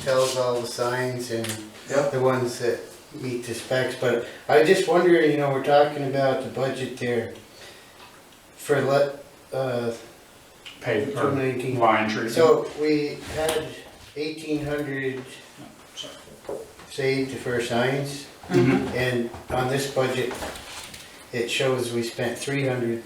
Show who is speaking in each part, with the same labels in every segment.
Speaker 1: tells all the signs and
Speaker 2: Yep.
Speaker 1: the ones that meet the specs, but I just wonder, you know, we're talking about the budget there for let, uh,
Speaker 3: pay,
Speaker 1: two
Speaker 3: or
Speaker 1: nineteen.
Speaker 3: line treatment.
Speaker 1: So we had eighteen hundred
Speaker 3: Sorry.
Speaker 1: saved for signs,
Speaker 3: Mhm.
Speaker 1: and on this budget, it shows we spent three hundred.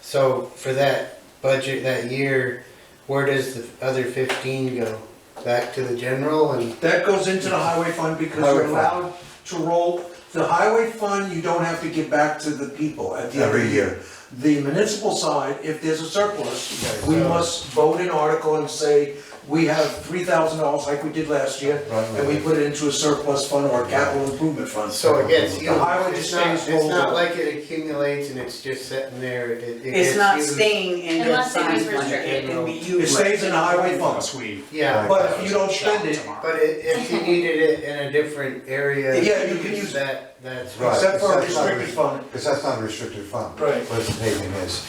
Speaker 1: So for that budget that year, where does the other fifteen go? Back to the general and,
Speaker 2: That goes into the highway fund because
Speaker 4: Highway
Speaker 2: you're
Speaker 4: fund.
Speaker 2: allowed to roll, the highway fund, you don't have to give back to the people at the end of
Speaker 4: Every
Speaker 2: the year. The municipal side, if there's a surplus,
Speaker 4: Okay,
Speaker 2: we
Speaker 4: so-
Speaker 2: must vote an article and say, we have three thousand dollars like we did last year,
Speaker 4: Right, right,
Speaker 2: and we
Speaker 4: right.
Speaker 2: put it into a surplus fund or a capital improvement fund.
Speaker 1: so it gets
Speaker 2: The highway
Speaker 1: it's
Speaker 2: just
Speaker 1: not,
Speaker 2: stays
Speaker 1: it's not
Speaker 2: rolled.
Speaker 1: like it accumulates and it's just sitting there, it, it gets
Speaker 5: It's not
Speaker 1: used.
Speaker 5: staying in the
Speaker 6: Unless it
Speaker 5: sign
Speaker 6: is
Speaker 5: fund, it can be
Speaker 2: It
Speaker 5: used.
Speaker 2: stays in the highway fund,
Speaker 3: Unless we.
Speaker 1: Yeah,
Speaker 2: but if you don't spend it,
Speaker 1: but i- if you needed it in a different area.
Speaker 2: Yeah, you can use-
Speaker 1: That, that's.
Speaker 4: Right.
Speaker 2: except for a
Speaker 4: Except for-
Speaker 2: restricted fund,
Speaker 4: Because that's not a restricted fund.
Speaker 2: Right.
Speaker 4: What it's payment is.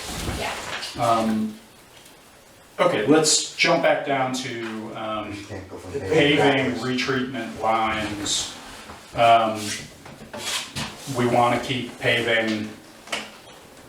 Speaker 6: Yeah.
Speaker 3: Um, Okay, let's jump back down to um,
Speaker 4: You can't go from
Speaker 2: The
Speaker 4: paving
Speaker 3: paving,
Speaker 4: backwards.
Speaker 3: retreatment lines. Um, We want to keep paving,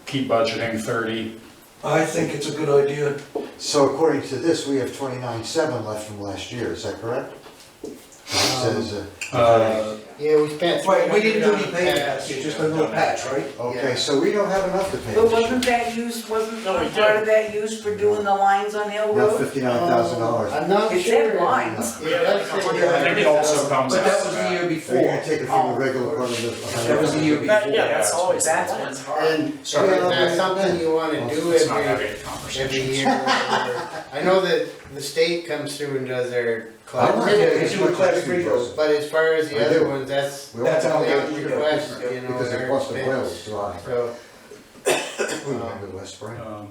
Speaker 3: keep budgeting 30.
Speaker 2: I think it's a good idea.
Speaker 4: So according to this, we have twenty-nine seven left from last year, is that correct? It says, uh,
Speaker 3: Uh,
Speaker 1: Yeah, we spent.
Speaker 2: Right, we didn't do any
Speaker 1: $300
Speaker 2: paying last year,
Speaker 1: Oh,
Speaker 2: just a little patch, right?
Speaker 4: okay, so we don't have enough to pay.
Speaker 5: But wasn't that used, wasn't
Speaker 7: No, it
Speaker 5: part of that used for doing the lines on Hill
Speaker 4: Not
Speaker 5: Road?
Speaker 4: fifty-nine thousand dollars.
Speaker 1: I'm not sure.
Speaker 5: It said lines.
Speaker 1: Yeah, that's it.
Speaker 3: I think it also comes
Speaker 2: But that
Speaker 3: out
Speaker 2: was
Speaker 3: of
Speaker 2: the year
Speaker 3: that.
Speaker 4: So you're gonna
Speaker 2: before.
Speaker 4: take it from the regular part of the.
Speaker 2: That was the year before.
Speaker 7: That- yeah, that's always, that's what's hard.
Speaker 1: And
Speaker 4: Sorry.
Speaker 1: is that something you wanna do
Speaker 3: It's not
Speaker 1: every,
Speaker 3: having a
Speaker 1: every
Speaker 3: conversation.
Speaker 1: year? or whatever? I know that the state comes through and does their
Speaker 4: I'm not getting
Speaker 1: class,
Speaker 4: as much as you, Joseph.
Speaker 1: but as far as
Speaker 4: I
Speaker 1: the other
Speaker 4: do.
Speaker 1: ones, that's
Speaker 4: We all
Speaker 2: That's
Speaker 4: found
Speaker 2: how
Speaker 4: out
Speaker 1: only
Speaker 2: we-
Speaker 1: a request, you know,
Speaker 4: Because the
Speaker 1: their
Speaker 4: cost of oil is
Speaker 1: expense.
Speaker 4: dry.
Speaker 1: So,
Speaker 4: We went to West Spring.
Speaker 3: Um,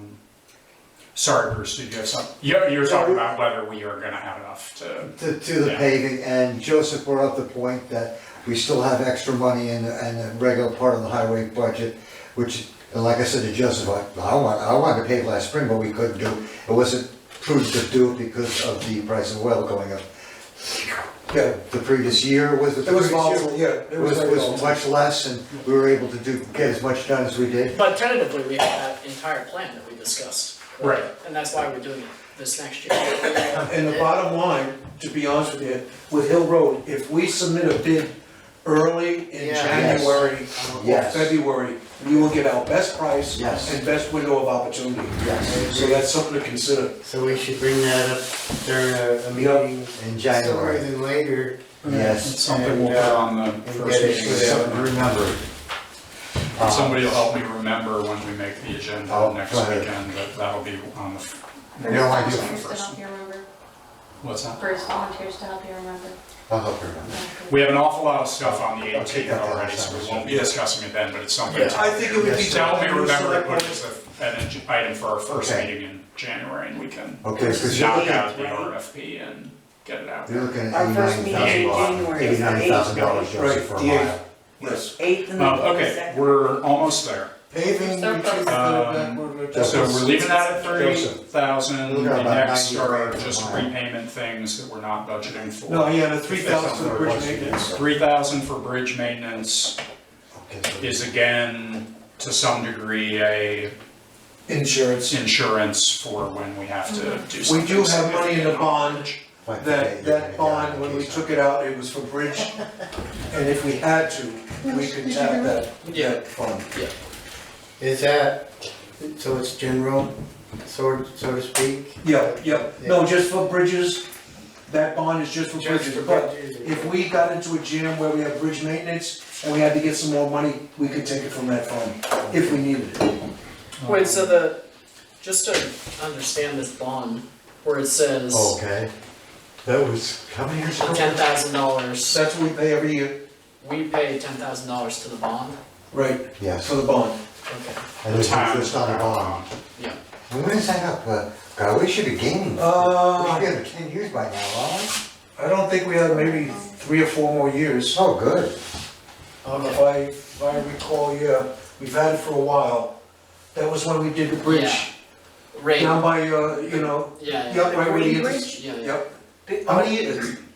Speaker 3: Sorry, Bruce, did you have something? Yeah, you were talking about whether we are going to have enough to,
Speaker 4: to, to the
Speaker 3: Yeah.
Speaker 4: paving, and Joseph brought up the point that we still have extra money in, the- in the regular part of the highway budget, which, and like I said to Joseph, I, I want, I wanted to pave last spring, but we couldn't do, it. it wasn't prudent to do it because of the price of oil going up.
Speaker 2: Yeah.
Speaker 4: The previous year was the
Speaker 2: It was
Speaker 4: previous
Speaker 2: volatile,
Speaker 4: year.
Speaker 2: yeah.
Speaker 4: It was,
Speaker 2: very
Speaker 4: was
Speaker 2: volatile.
Speaker 4: much less, and we were able to do, get as much done as we did.
Speaker 7: But tentatively, we have that entire plan that we discussed.
Speaker 3: right.
Speaker 7: And that's why we're doing it this next year.
Speaker 2: And the bottom line, to be honest with you, with Hill Road, if we submit a bid early in
Speaker 1: Yeah.
Speaker 2: January
Speaker 1: um,
Speaker 2: or
Speaker 4: Yes.
Speaker 2: February, we will get our best price
Speaker 4: Yes.
Speaker 2: and best window of opportunity.
Speaker 4: Yes.
Speaker 2: So that's something to consider.
Speaker 1: so we should bring that up during a, a meeting
Speaker 4: In
Speaker 1: sooner
Speaker 4: January,
Speaker 1: than later.
Speaker 4: yes.
Speaker 3: Something we'll put on the first
Speaker 1: get it
Speaker 3: meeting.
Speaker 1: to them.
Speaker 3: so-
Speaker 4: Remember.
Speaker 3: And Somebody will help me remember when we make the
Speaker 4: Uh, Oh,
Speaker 3: agenda next
Speaker 4: right.
Speaker 3: weekend, that that'll be on the, f-
Speaker 4: You know, I do-
Speaker 6: Volunteers to help you remember,
Speaker 3: what's that?
Speaker 6: first volunteers to help you remember.
Speaker 4: I'll help you remember.
Speaker 3: We have an awful lot of stuff on the
Speaker 4: Okay,
Speaker 3: 18th
Speaker 4: that's
Speaker 3: already, so we won't be discussing it then, but it's something.
Speaker 7: Yeah,
Speaker 3: to-
Speaker 2: I think it would be.
Speaker 4: Yes,
Speaker 3: To help me remember to put
Speaker 2: Select-
Speaker 3: as a- an ag- item for our first
Speaker 4: Okay.
Speaker 3: meeting in January, and we can
Speaker 4: Okay, because you're
Speaker 3: knock
Speaker 4: looking,
Speaker 3: out the
Speaker 5: right?
Speaker 3: RFP and get it out.
Speaker 4: you're looking at
Speaker 5: Our first
Speaker 4: eighty-nine
Speaker 5: meeting in
Speaker 4: thousand dollars,
Speaker 5: January is the
Speaker 4: eighty-nine thousand dollars,
Speaker 2: Right,
Speaker 4: Joseph, for a
Speaker 2: the eighth.
Speaker 4: mile.
Speaker 2: Yes.
Speaker 5: Eighth and the
Speaker 3: Um, Okay,
Speaker 5: second.
Speaker 3: we're almost there.
Speaker 4: Paving,
Speaker 6: Surplus.
Speaker 4: retreat,
Speaker 3: Um, So we're leaving that at thirty
Speaker 4: Joseph.
Speaker 3: thousand,
Speaker 4: We've
Speaker 3: the
Speaker 4: got about
Speaker 3: next
Speaker 4: 90
Speaker 3: are
Speaker 4: grand for
Speaker 3: just
Speaker 4: mine.
Speaker 3: repayment things that we're not budgeting for.
Speaker 2: No, yeah, the three thousand for the bridge maintenance.
Speaker 3: Three thousand for bridge maintenance
Speaker 4: Okay,
Speaker 3: is again, to some degree, a
Speaker 2: Insurance.
Speaker 3: insurance for when we have to do
Speaker 2: We
Speaker 3: something.
Speaker 2: do have money in the bond,
Speaker 4: like
Speaker 2: that,
Speaker 4: the-
Speaker 2: that bond, when we took it out, it was for bridge, and if we had to, we could tap that,
Speaker 7: Yeah.
Speaker 2: that fund.
Speaker 1: Is that, so it's general, so, so to speak?
Speaker 2: Yeah, yeah, no, just for bridges, that bond is just for
Speaker 1: Just for
Speaker 2: bridges, but
Speaker 1: bridges.
Speaker 2: if we got into a jam where we had bridge maintenance, and we had to get some more money, we could take it from that fund, if we needed it.
Speaker 7: Wait, so the, just to understand this bond, where it says
Speaker 4: Okay, that was, how many years ago?
Speaker 7: ten thousand dollars,
Speaker 2: That's what we pay every year,
Speaker 7: we pay ten thousand dollars to the bond,
Speaker 2: right,
Speaker 4: Yes,
Speaker 2: for the bond.
Speaker 7: okay.
Speaker 4: and there's interest on the bond.
Speaker 7: Yeah.
Speaker 4: And When is that up, uh, God, we should be gaining, we should be
Speaker 2: Uh,
Speaker 4: under ten years by now, aren't we?
Speaker 2: I don't think we have maybe three or four more years.
Speaker 4: Oh, good,
Speaker 2: I don't know if I, if I recall, yeah, we've had it for a while. That was when we did the bridge,
Speaker 7: Rate, yeah,
Speaker 2: down by, uh, you know,
Speaker 7: yeah,
Speaker 2: yeah, right where
Speaker 5: Green
Speaker 2: you get
Speaker 5: Bridge?
Speaker 2: this.
Speaker 7: yeah, yeah.
Speaker 2: Yep. How many years,